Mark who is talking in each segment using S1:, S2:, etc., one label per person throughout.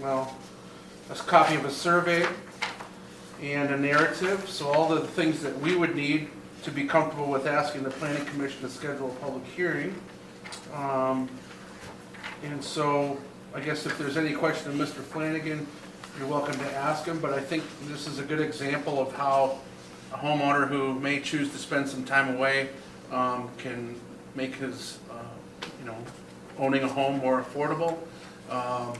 S1: well, a copy of a survey and a narrative, so all the things that we would need to be comfortable with asking the planning commission to schedule a public hearing. Um, And so, I guess if there's any question of Mr. Flanagan, you're welcome to ask him, but I think this is a good example of how a homeowner who may choose to spend some time away um, can make his, uh, you know, owning a home more affordable. Um,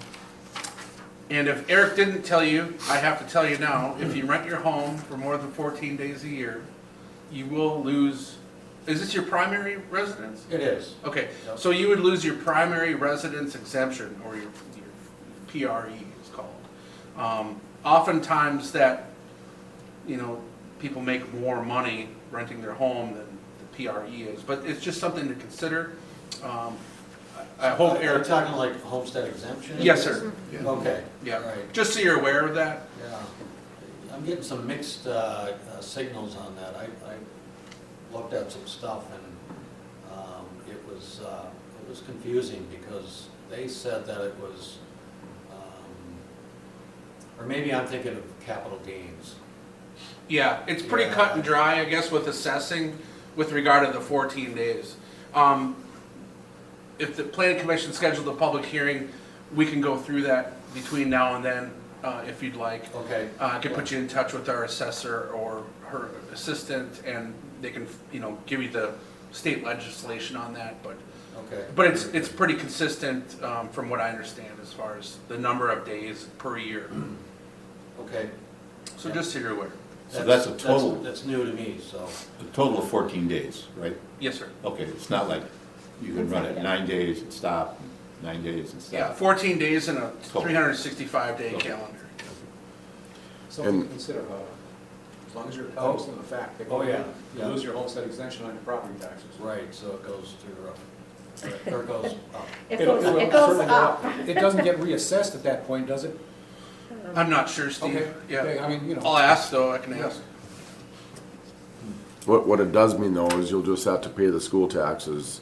S1: and if Eric didn't tell you, I have to tell you now, if you rent your home for more than fourteen days a year, you will lose, is this your primary residence?
S2: It is.
S1: Okay, so you would lose your primary residence exemption, or your, your PRE is called. Um, oftentimes that, you know, people make more money renting their home than the PRE is, but it's just something to consider. Um, I I hope
S2: Are you
S1: Eric,
S2: talking like homestead exemption?
S1: yes, sir,
S2: Okay.
S1: yeah,
S2: All right,
S1: just so you're aware of that.
S2: yeah. I'm getting some mixed uh, uh, signals on that. I, I looked at some stuff and um, it was, uh, it was confusing because they said that it was, um, or maybe I'm thinking of capital gains.
S1: Yeah, it's pretty
S2: Yeah.
S1: cut and dry, I guess, with assessing with regard to the 14 days. Um, If the planning commission scheduled a public hearing, we can go through that between now and then, uh, if you'd like.
S2: Okay.
S1: Uh, I can put you in touch with our assessor or her assistant, and they can, you know, give you the state legislation on that, but,
S2: Okay.
S1: but it's, it's pretty consistent um, from what I understand as far as the number of days per year.
S2: Okay.
S1: So just so you're aware.
S3: So that's a total-
S2: That's new to me, so.
S3: A total of 14 days, right?
S1: Yes, sir.
S3: Okay, it's not like you can run it nine days and stop, nine days and
S1: Yeah,
S3: stop.
S1: 14 days in a
S3: Cool.
S1: 365-day
S3: Cool.
S1: calendar.
S4: Something to
S5: And-
S4: consider, however. As long as you're
S2: Oh.
S4: cognizant of the fact that
S2: Oh, yeah,
S4: you
S2: yeah.
S4: lose your homestead exemption on your property taxes.
S2: Right, so it goes through, uh, or it goes up.
S5: It
S4: It'll-
S5: goes,
S4: will
S5: it goes
S4: certainly go
S5: up.
S4: It doesn't get reassessed at that point, does it?
S1: I'm not sure,
S4: Okay.
S1: Steve.
S4: Okay,
S1: Yeah.
S4: I mean, you
S1: I'll
S4: know,
S1: ask, though, I can ask.
S5: What, what it does mean though is you'll just have to pay the school taxes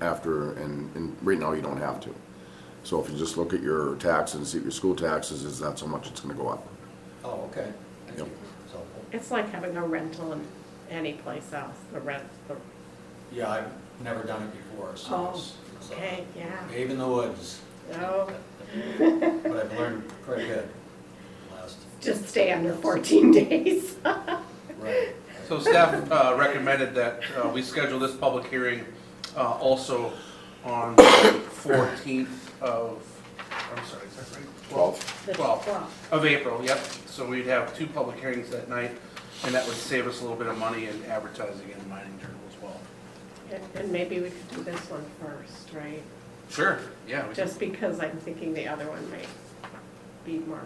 S5: after, and, and right now you don't have to. So if you just look at your tax and see what your school taxes is, that's how much it's gonna go up.
S2: Oh, okay.
S5: Yep.
S2: It's helpful.
S6: It's like having a rental in any place else, the rent, the,
S2: Yeah, I've never done it before, so.
S6: oh,
S2: it's- it's, uh,
S6: okay, yeah,
S2: Cave in the woods,
S6: oh,
S2: but I've learned quite a bit last,
S6: just stay under fourteen days.
S2: right.
S1: So staff uh, recommended that uh, we schedule this public hearing uh, also on the 14th of, I'm sorry, is that right?
S6: The
S1: 12th
S6: 12th.
S1: of April, yep. So we'd have two public hearings that night, and that would save us a little bit of money in advertising and mining journal as well.
S6: And- And maybe we could do this one first, right?
S1: Sure, yeah. we can-
S6: Just because I'm thinking the other one might be more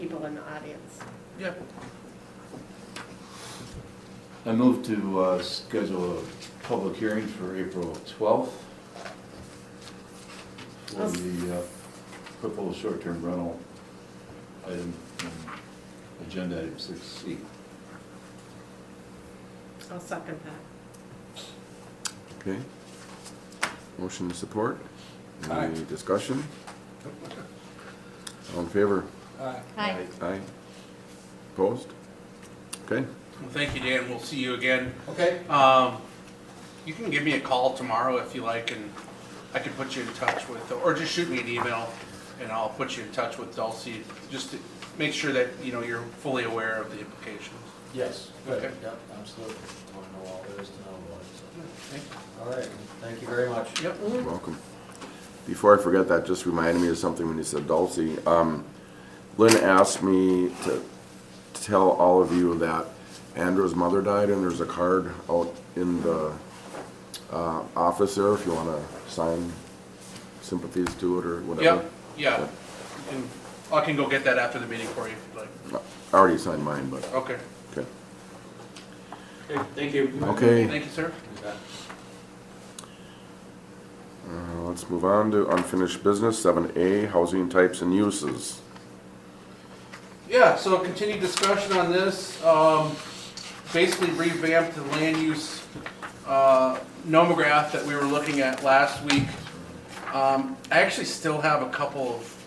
S6: people in the audience.
S1: Yeah.
S7: I move to uh, schedule a public hearing for April 12th for the uh, proposed short-term rental item, um, agenda item 6C.
S6: I'll second that.
S5: Okay? Motion to support?
S4: Aye.
S5: Any discussion? All in favor?
S4: uh,
S7: Aye.
S5: Aye. Opposed? Okay,
S1: Well, thank you, Dan. We'll see you again.
S2: Okay,
S1: Um, you can give me a call tomorrow if you like, and I can put you in touch with, or just shoot me an email, and I'll put you in touch with Dulcie, just to make sure that, you know, you're fully aware of the implications.
S2: yes, good,
S1: Okay.
S2: yep, absolutely. I want to know all there is to know about it,
S1: Thank you.
S2: so. All right, thank you very much.
S1: Yep.
S5: you're welcome. Before I forget that, just reminded me of something when you said Dulce. Um, Lynn asked me to tell all of you that Andrew's mother died and there's a card out in the uh, office there if you want to sign sympathies to it or whatever.
S1: Yep, yeah. And I can go get that after the meeting for you if you'd like.
S5: I already signed mine, but,
S1: Okay.
S5: okay.
S2: Okay, Thank you.
S5: Okay,
S1: Thank you, sir.
S2: You bet.
S5: uh, let's move on to unfinished business, seven A, housing types and uses.
S1: Yeah, so continued discussion on this, um, basically revamped the land use, uh, nomograph that we were looking at last week. Um, I actually still have a couple of